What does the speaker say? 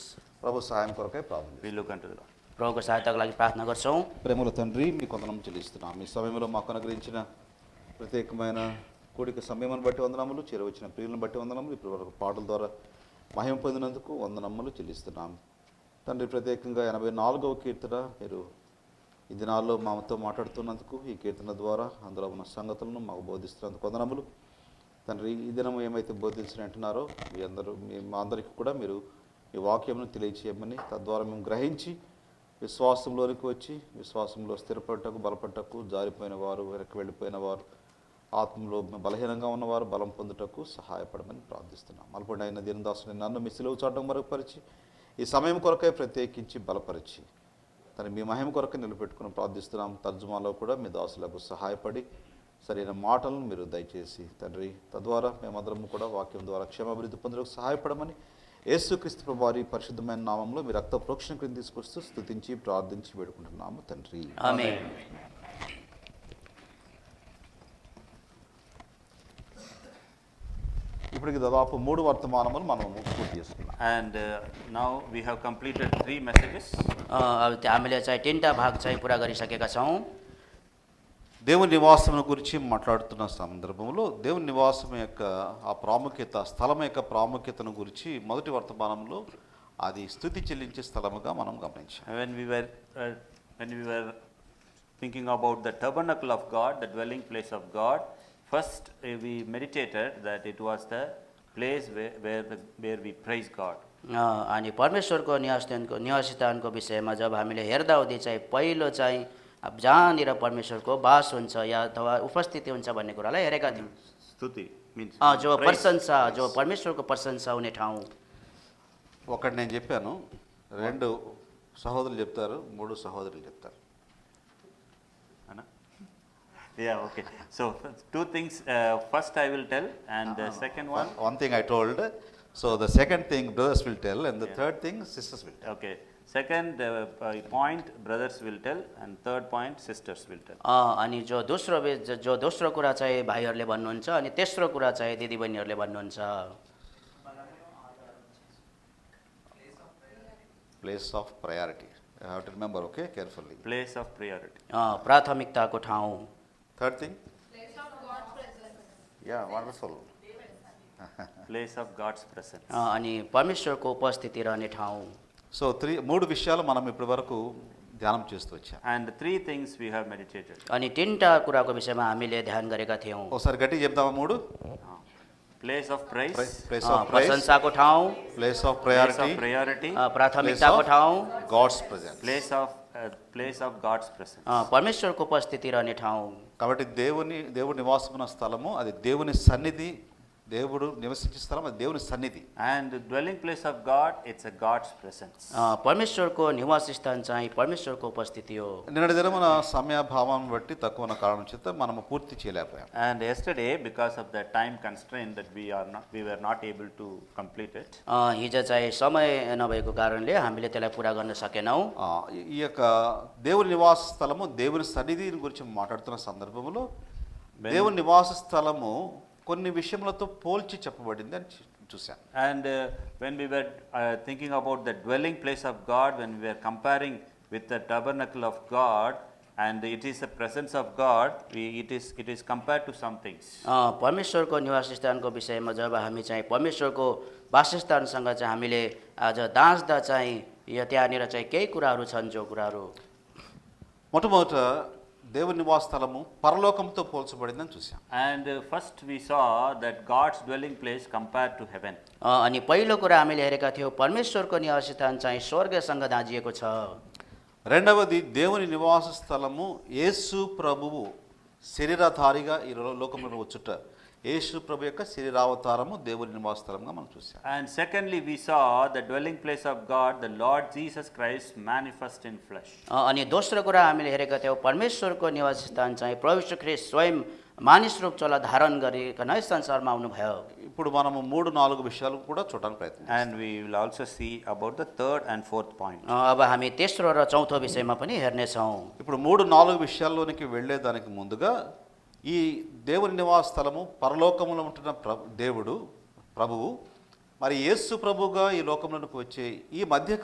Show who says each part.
Speaker 1: ప్రభు సహాయం కొరకే ప్రార్థన చేస్తాం.
Speaker 2: We look unto the Lord.
Speaker 3: प्रभुको सहायताको लागि प्रार्थना गर्छौँ
Speaker 1: ప్రేమల తండ్రి మీ కొందనం చెల్లిస్తున్నాం మీ సమయంలో మాకు అనుగ్రహించిన ప్రత్యేకమైన కూడిక సమయమును బట్టి వందనములు చేరవచ్చిన ప్రియులను బట్టి వందనములు ఇప్పటి వరకు పాటల ద్వారా మహిమ పొందినందుకు వందనములు చెల్లిస్తున్నాం తండ్రి ప్రత్యేకంగా ఎనభై నాలుగవ కీర్తన మీరు ఈ దినాల్లో మాతో మాట్లాడుతున్నందుకు ఈ కీర్తన ద్వారా అందులో ఉన్న సంగతులను మాకు బోధిస్తున్నందుకు వందనములు తండ్రి ఈ దినం ఏమైతే బోధించిన అంటున్నారో మీ అందరూ మీ మా అందరికీ కూడా మీరు ఈ వాక్యమును తెలియచేయమని తద్వారా మేము గ్రహించి విశ్వాసంలోనికి వచ్చి విశ్వాసంలో స్థిరపడటకు బలపడటకు జారిపోయిన వారు వెనక్కి వెళ్ళిపోయిన వారు ఆత్మలో బలహీనంగా ఉన్నవారు బలం పొందుటకు సహాయపడమని ప్రార్థిస్తున్నాం అల్పండి అయిన దీనదాసుని నన్ను మీ సిలువు చాటం మరుగుపరిచి ఈ సమయం కొరకై ప్రత్యేకించి బలపరిచి తను మీ మహిమ కొరకు నిలబెట్టుకుని ప్రార్థిస్తున్నాం తర్జుమాలో కూడా మీ దాసులకు సహాయపడి సరైన మాటలను మీరు దయచేసి తండ్రి తద్వారా మేమందరము కూడా వాక్యం ద్వారా క్షేమాభివృద్ధి పొందడానికి సహాయపడమని యేసుక్రీస్తు ప్రభు వారి పరిశుద్ధమైన నామంలో మీ రక్త ప్రోక్షణ క్రింద తీసుకొస్తూ స్తుతించి ప్రార్థించి వేడుకుంటున్నాము తండ్రి
Speaker 3: आमेन
Speaker 1: ఇప్పటికి దాదాపు మూడు వర్తమానములు మనము పూర్తి చేసుకున్నాం
Speaker 2: And uh, now we have completed three messages.
Speaker 3: अ, अब त्यो हामीले चाहिँ तिनवटा भाग चाहिँ पुरा गरिसकेका छौँ
Speaker 1: దేవుని నివాసమును గురించి మాట్లాడుతున్న సందర్భంలో దేవుని నివాసం యొక్క ఆ ప్రాముఖ్యత స్థలం యొక్క ప్రాముఖ్యతను గురించి మొదటి వర్తమానంలో అది స్థుతి చెల్లించే స్థలముగా మనం గమనించాం
Speaker 2: And when we were, uh, when we were thinking about the tabernacle of God, the dwelling place of God, first uh, we meditated that it was the place where, where, the, where we praise God.
Speaker 3: अ, अनि परमेश्वरको निवासस्थानको निवासस्थानको विषयमा जब हामीले हेर्दाहुँदी चाहिँ पहिलो चाहिँ अब जहाँनिर परमेश्वरको बास हुन्छ या अथवा उपस्थिति हुन्छ भन्ने कुरालाई हेरेका थियौँ
Speaker 2: Stuti means
Speaker 3: अ, जो
Speaker 2: praise.
Speaker 3: प्रशंसा जो परमेश्वरको प्रशंसा हुने ठाउँ
Speaker 1: ఒకటి నేను చెప్పాను రెండు సహోదరులు చెప్తారు మూడు సహోదరులు చెప్తారు
Speaker 2: Anna? Yeah, okay. So two things, uh, first I will tell and the second one,
Speaker 1: one thing I told so the second thing brothers will tell and the third thing sisters will tell
Speaker 2: okay. Second uh, uh, point, brothers will tell and third point, sisters will tell.
Speaker 3: अ, अनि जो दोस्रो बे- जो- जो दोस्रो कुरा चाहिँ भाइहरूले भन्नुहुन्छ अनि तेस्रो कुरा चाहिँ दिदीबहिनीहरूले भन्नुहुन्छ
Speaker 1: place of priority I have to remember okay carefully
Speaker 2: Place of priority.
Speaker 3: अ, ప్రాథమికతాको ठाउँ
Speaker 1: థర్డ్ థింగ్ యా wonderful
Speaker 2: place of God's presence.
Speaker 3: अ, अनि परमेश्वरको उपस्थिति रहने ठाउँ
Speaker 1: సో త్రీ మూడు విషయాలు మనం ఇప్పటి వరకు ధ్యానం చేస్తూ వచ్చాం
Speaker 2: And three things we have meditated.
Speaker 3: अनि तिनवटा कुराको विषयमा हामीले ध्यान गरेका थियौँ
Speaker 1: ఒకసారి గట్టి చెప్దామా మూడు
Speaker 2: Uh, Place of praise,
Speaker 1: place
Speaker 3: uh,
Speaker 1: of praise
Speaker 3: प्रशंसाको ठाउँ
Speaker 1: place of
Speaker 2: place
Speaker 1: priority
Speaker 2: of priority, uh,
Speaker 3: अ, प्राथमिकताको ठाउँ
Speaker 1: God's presence
Speaker 2: place of, uh, place of God's presence.
Speaker 3: अ, परमेश्वरको उपस्थिति रहने ठाउँ
Speaker 1: కాబట్టి దేవుని దేవుడు నివాసమున్న స్థలము అది దేవుని సన్నిధి దేవుడు నివసించే స్థలం అది దేవుని సన్నిధి
Speaker 2: And the dwelling place of God, it's a God's presence.
Speaker 3: अ, परमेश्वरको निवास स्थान चाहिँ परमेश्वरको उपस्थिति हो
Speaker 1: నిన్నటి దినమున సమయాభావం బట్టి తక్కువ ఉన్న కారణం చేత మనము పూర్తి చేయలేకపోయాం
Speaker 2: And yesterday, because of the time constraint that we are not, we were not able to complete it.
Speaker 3: अ, हिजो चाहिँ समय नभएको कारणले हामीले त्यसलाई पुरा गर्न सकेनौँ
Speaker 1: ఆ, ఈ- ఈ యొక్క దేవుని నివాస స్థలము దేవుని సన్నిధి గురించి మాట్లాడుతున్న సందర్భంలో దేవుని నివాస స్థలము కొన్ని విషయములతో పోల్చి చెప్పబడింది అని చూ- చూశాను
Speaker 2: And uh, when we were uh, thinking about the dwelling place of God, when we were comparing with the tabernacle of God, and it is the presence of God, we, it is it is compared to some things.
Speaker 3: अ, परमेश्वरको निवासस्थानको विषयमा जब हामी चाहिँ परमेश्वरको वासस्थानसँग चाहिँ हामीले आज दाँच्दा चाहिँ यो त्यहाँनिर चाहिँ केही कुराहरू छन् जो कुराहरू
Speaker 1: మొట్టమొదట దేవుని నివాస స్థలము పరలోకంతో పోల్చబడింది అని చూశాం
Speaker 2: And uh, first we saw that God's dwelling place compared to heaven.
Speaker 3: अ, अनि पहिलो कुरा हामीले हेरेका थियौँ परमेश्वरको निवासस्थान चाहिँ स्वर्गसँग दाँजिएको छ
Speaker 1: రెండవది దేవుని నివాస స్థలము యేసు ప్రభువు శరీరధారిగా ఈ లో- లోకంలో వచ్చుట యేసు ప్రభు యొక్క శరీరావతారము దేవుని నివాస స్థలంగా మనం చూసాం
Speaker 2: And secondly, we saw the dwelling place of God, the Lord Jesus Christ manifest in flesh.
Speaker 3: अ, अनि दोस्रो कुरा हामीले हेरेका थियौँ परमेश्वरको निवासस्थान चाहिँ प्रविश्व ख्रिस्ट स्वयं मानिस रूप चोला धारण गरिकन यस संसारमा आउनुभयो
Speaker 1: ఇప్పుడు మనము మూడు నాలుగు విషయాలు కూడా చూడడానికి ప్రయత్నం చేద్దాం.
Speaker 2: And we will also see about the third and fourth point.
Speaker 3: अ, अब हामी तेस्रो र चौथो विषयमा पनि हेर्नेछौँ
Speaker 1: ఇప్పుడు మూడు నాలుగు విషయాల్లోనికి వెళ్ళేదానికి ముందుగా ఈ దేవుని నివాస స్థలము పరలోకములో ఉంటున్న ప్రభు దేవుడు ప్రభువు మరి యేసు ప్రభువుగా ఈ లోకంలోనికి వచ్చే ఈ మధ్య